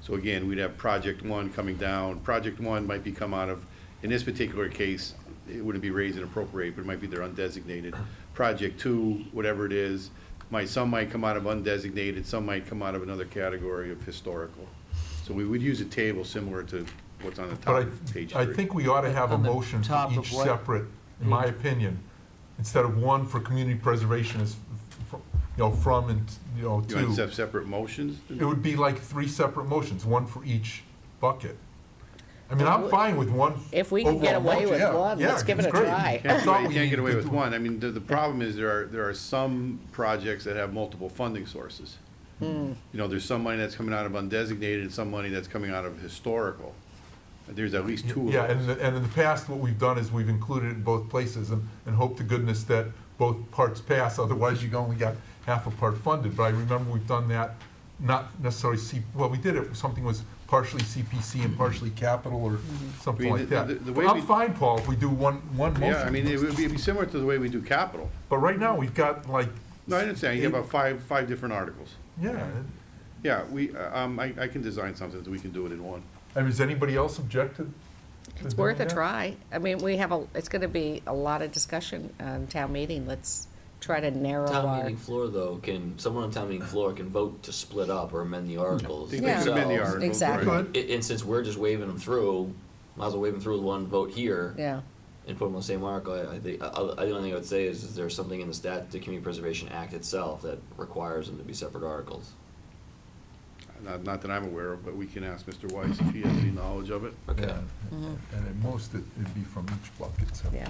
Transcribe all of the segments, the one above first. So again, we'd have project one coming down. Project one might be come out of, in this particular case, it wouldn't be raise and appropriate, but it might be their undesignated. Project two, whatever it is, might, some might come out of undesignated, some might come out of another category of historical. So we would use a table similar to what's on the top But of page I, I three. think we ought to have a On the motion for top of each what? separate, in my opinion, instead of one for community preservation is, f- f- you know, from and, you know, You want to to. have separate motions? It would be like three separate motions, one for each bucket. I mean, I'm fine with one. If we can get overall away motion, with yeah, one, yeah, let's give it it's a great. try. I Can't get thought away- we can't get away needed with to- one. I mean, the, the problem is there are, there are some projects that have multiple funding sources. You know, there's some money that's coming out of undesignated and some money that's coming out of historical. There's at least two of Yeah, and, those. the- and in the past, what we've done is we've included it in both places and, and hope to goodness that both parts pass, otherwise you only got half a part funded. But I remember we've done that, not necessarily C, well, we did it, something was partially CPC and partially capital or something I mean, like the- the- that. the But way we- I'm fine, Paul, if we do one, one Yeah, I mean, motion. it would be it'd be similar to the way we do capital. But right now, we've got like, No, I understand. You have about five, five different articles. yeah. Yeah, we, um, I, I can design something that we can do it in one. I mean, does anybody else object to? to It's doing worth a that? try. I mean, we have a, it's gonna be a lot of discussion on town meeting. Let's try to narrow Town our. meeting floor, though, can, someone on town meeting floor can vote to split up or amend the articles. They can amend the themselves. articles, exactly. right. Good. I- And, since we're just waving them through, might as well wave them through with one vote here. Yeah, And put them on the same article, I, I think, I, I, the only thing I would say is, is there's something in the stat, the Community Preservation Act itself that requires them to be separate articles. Not, not that I'm aware of, but we can ask Mr. Weiss if he has any knowledge of it. Okay. Yeah, And at most, it- it'd be from each bucket, so. Yeah.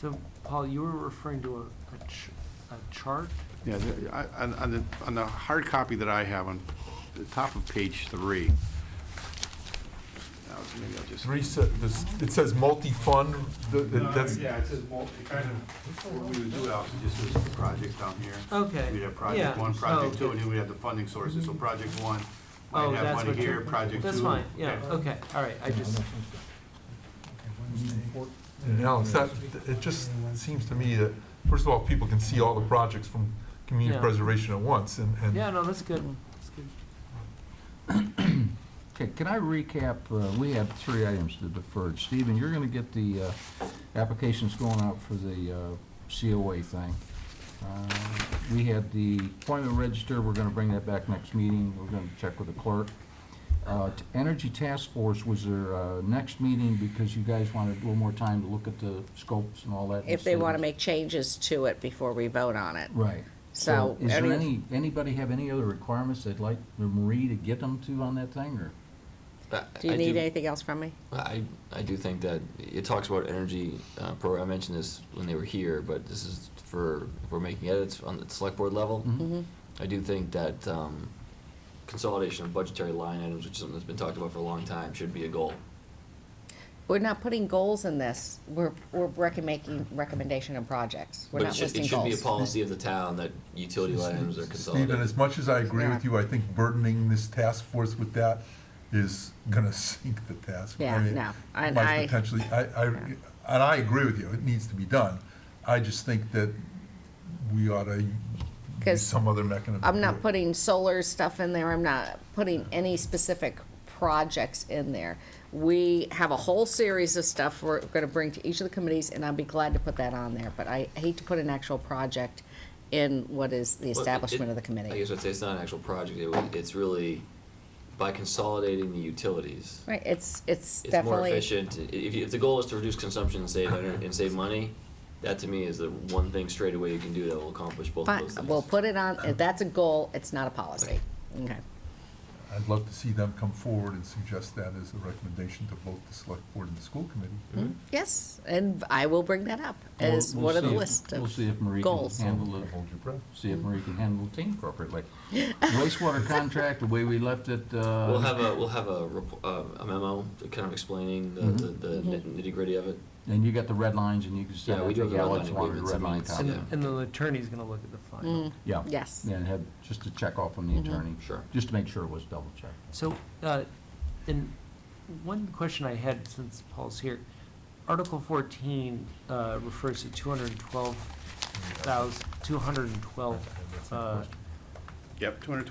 So, Paul, you were referring to a, a ch- a chart? Yeah, the- I- on, on the, on the hard copy that I have on the top of page three. Now, Maybe I'll just. Three, se- this- it says multi-fund, th- th- that's, Yeah, it says multi, kind of, what we would do, Alex, is just do some projects down here. Okay, We'd have project Oh, yeah. one, project Oh, two, okay. and then we'd have the funding sources, so project one Oh, might have that's money what here, you're- project two. That's fine, yeah, okay, all right, I just, no, it's not, it just seems to me that, first of all, people can see all the projects from community Yeah. preservation at once, and, yeah, and no, that's good, that's good. Okay, can I recap, uh, we have three items to defer. Stephen, you're gonna get the, uh, applications going out for the, uh, COA thing. Uh, We had the appointment register, we're gonna bring that back next meeting, we're gonna check with the clerk. Uh, t- Energy Task Force was their, uh, next meeting because you guys wanted a little more time to look at the scopes and all that. and if they wanna see- make changes to it before we vote on it. Right. So, Is there any- any, anybody have any other requirements they'd like Marie to get them to on that thing, or? I- Do you I need anything else from me? I, I do think that it talks about energy, uh, pro, I mentioned this when they were here, but this is for, if we're making edits on the select board level. Mm-hmm. I do think that, um, consolidation of budgetary line items, which is something that's been talked about for a long time, should be a goal. We're not putting goals in this. We're, we're recom- making recommendation on projects. We're But it not should, it listing should be a goals. policy of the town that utility line items are Stephen, consolidated. as much as I agree with Yeah. you, I think burdening this task force with that is gonna sink the task. I Yeah, mean, no, and might I- Potentially, I, I, and I agree with you, it needs to be done, I just think that we ought to use 'Cause some other mechanism. to I'm do not it. putting solar stuff in there, I'm not putting any specific projects in there. We have a whole series of stuff we're gonna bring to each of the committees, and I'd be glad to put that on there, but I hate to put an actual project in what is the Well, it- establishment of the I committee. guess I'd say it's not an actual project, it, would- it's really, by consolidating the utilities, Right, it's, it's it's more definitely, efficient. I- If, you- if the goal is to reduce consumption and save, ener- and save money, that to me is the one thing straight away you can do that will accomplish both of fine, those things. we'll put it on, if that's a goal, it's not a policy, okay? I'd love to see them come forward and suggest that as a recommendation to both the select board and the school committee. hmm? Yes, and I will bring that up as Hmm? We'll- we'll one of the see if- list We'll of see if Marie can goals. handle it. Hold your breath. see if Marie can handle the team appropriately. Wastewater contract, the way we left it, uh. We'll have a, we'll have a repo- uh, a memo kind of explaining the, the Mm-hmm. nitty gritty of it. And you got the red lines and you can send Yeah, we out do the have the red yellow, line if you wanted a agreements, red I mean, line it's- copy. yeah. Mm. And the attorney's gonna look at the final. Yeah. Mm-hmm. Yes. Mm-hmm. And have, just to check off from the attorney. Sure. Just to make sure it was double checked. So, uh, and one question I had since Paul's here, Article fourteen, uh, refers to two hundred and twelve thousand, two hundred and twelve, uh, Yep, two hundred twelve